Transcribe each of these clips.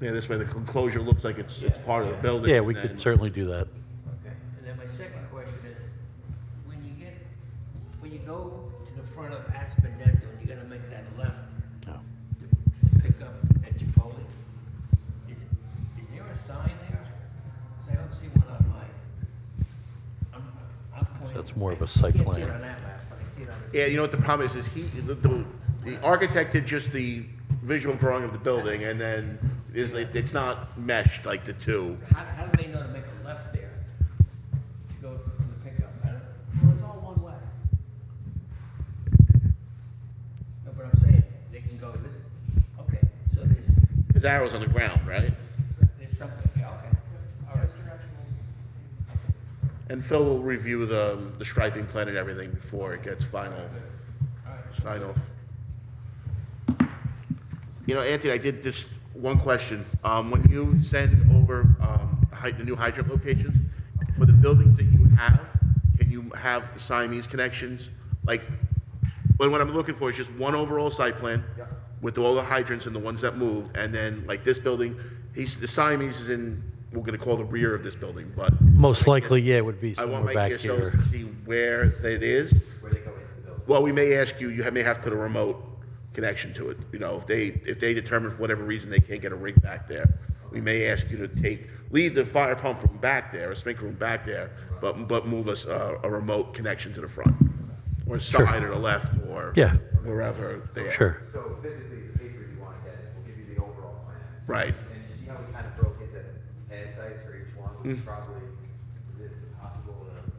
Yeah, this way the enclosure looks like it's, it's part of the building. Yeah, we and then- could certainly do that. Okay, and then my second question is, when you get, when you go to the front of Aspen Dental, you're gonna make that left Yeah. to to pick up at Chipotle, is, is there a sign there? 'Cause I don't see one on my, I'm, I'm pointing. that's more of a site I can't see it plan. on that map, but I see it on this. Yeah, you know what the problem is, is he, the, the, the architect did just the visual drawing of the building, and then is, it- it's not meshed like the two. How, how do they know to make a left there to go to the pickup? I don't, Well, it's all one way. know what I'm saying, they can go this, okay, so there's, His arrow's on the ground, right? there's something, yeah, okay, all right. And Phil will review the, um, the striping plan and everything before it gets final, sign off. You know, Anthony, I did just, one question. Um, when you send over, um, hy- the new hydrant locations, for the buildings that you have, can you have the Siamese connections? Like, when, what I'm looking for is just one overall site plan with all the hydrants and the ones that moved, and then like this building, he's, the Siamese is in, we're gonna call the rear of this building, but Most likely, yeah, it would be I want my somewhere back KSOs here. to see where it is. Where they go into the building. Well, we may ask you, you may have to put a remote connection to it. You know, if they, if they determine for whatever reason they can't get a rig back there, we may ask you to take, leave the fire pump room back there, a sprinkler room back there, but, but move us uh, a, a remote connection to the front. Or side or the left or. Yeah. Wherever they are. Sure. So physically, the paper you want to get is we'll give you the overall plan. Right. And you see how we kind of broke into pad sites for each one, Mm. which probably, is it possible to?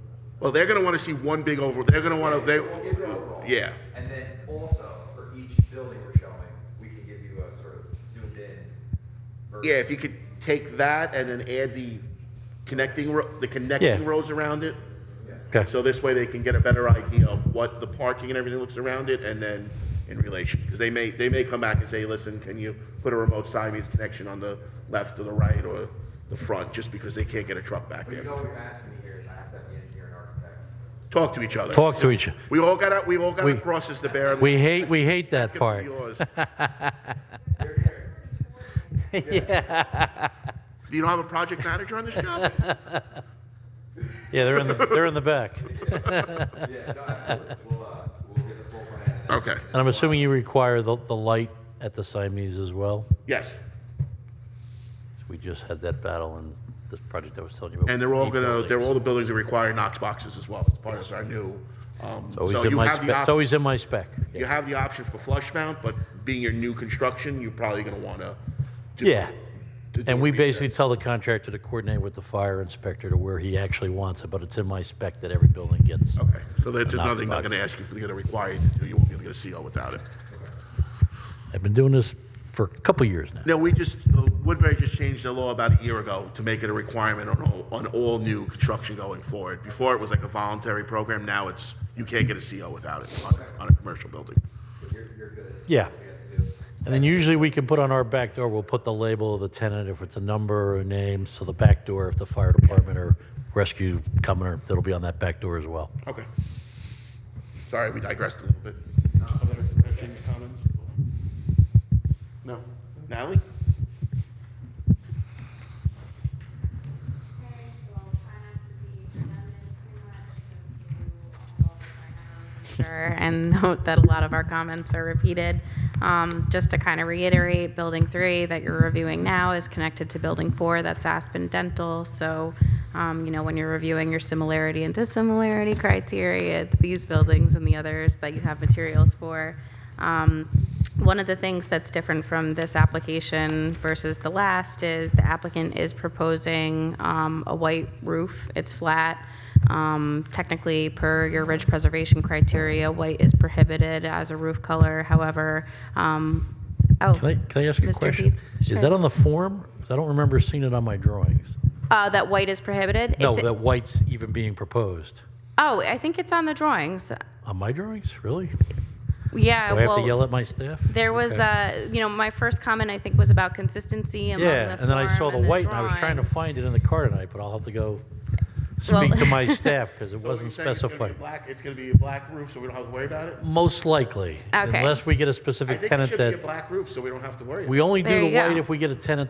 Well, they're gonna wanna see one big over, they're gonna wanna, they, So We'll give you the overall. yeah. And then also, for each building we're showing, we can give you a sort of zoomed in. yeah, version. if you could take that and then add the connecting, ro- the connecting Yeah. roads around it. Okay. So this way they can get a better idea of what the parking and everything looks around it and then in relation. Because they may, they may come back and say, listen, can you put a remote Siamese connection on the left or the right or the front? Just because they can't get a truck back But you there. know what you're asking me here is I have to have the engineer and architect. Talk to each other. Talk to each, We all got our, we all got our We- crosses to bear. we hate, we hate that It's gonna part. be yours. They're here. Do you not have a project manager on this job? Yeah, they're in the, they're in the back. Yeah, no, absolutely. We'll, uh, we'll get the full plan. and then- Okay, And I'm assuming you require the, the light at the Siamese as well? yes. We just had that battle in this project I was telling you about. And they're all eight gonna, they're buildings. all the buildings that require Knox boxes as well. It's part of our new. um, It's So always in you my have the spec, it's option. always in my spec. yeah. You have the option for flush mount, but being your new construction, you're probably gonna wanna. do- Yeah. to do And we research. basically tell the contractor to coordinate with the fire inspector to where he actually wants it, but it's in my spec that every building gets. Okay, so that's A Knox another thing they're box. gonna ask you if they're gonna require you to do, you won't be able to get a CO without it. I've been doing this for a couple years now. No, we just, uh, Woodbury just changed the law about a year ago to make it a requirement on all, on all new construction going forward. Before it was like a voluntary program, now it's, you can't get a CO without it on, on a commercial building. You're, you're good. Yeah. We have to do. And then usually we can put on our back door, we'll put the label of the tenant, if it's a number or a name, so the back door, if the fire department or rescue coming, or that'll be on that back door as well. Okay. Sorry, we digressed a little bit. Other questions, comments? No. Natalie? Okay, so I'll try not to be redundant too much since you all are finalists, I'm Sure, and note that a lot of our comments are repeated. Um, Just to kind of reiterate, Building 3 that you're reviewing now is connected to Building 4, that's Aspen Dental. So, um, you know, when you're reviewing your similarity and dissimilarity criteria, it's these buildings and the others that you have materials for. Um, One of the things that's different from this application versus the last is the applicant is proposing um, a white roof. It's flat. Um, Technically, per your ridge preservation criteria, white is prohibited as a roof color. However, um, oh. Can I, can I ask you a Mr. question? Dietz, sure. Is that on the form? Because I don't remember seeing it on my drawings. Uh, That white is prohibited? No, It's- that white's even being proposed. Oh, I think it's on the drawings. On my drawings, really? Do Yeah, I have to Uh, well, yell at my staff? there was, Okay. uh, you know, my first comment, I think, was about consistency among the Yeah, and then I saw form the white, and I was trying to drawings. find it in the car tonight, but I'll have to go Well- speak to my staff, because it So you're wasn't saying it's gonna be specified. black- It's gonna be a black roof, so we don't have to worry about it? Most likely, Okay. unless we get a I specific think it tenant should be a that, black roof, so we don't have to worry about it. we only There do the you go. white if we get a tenant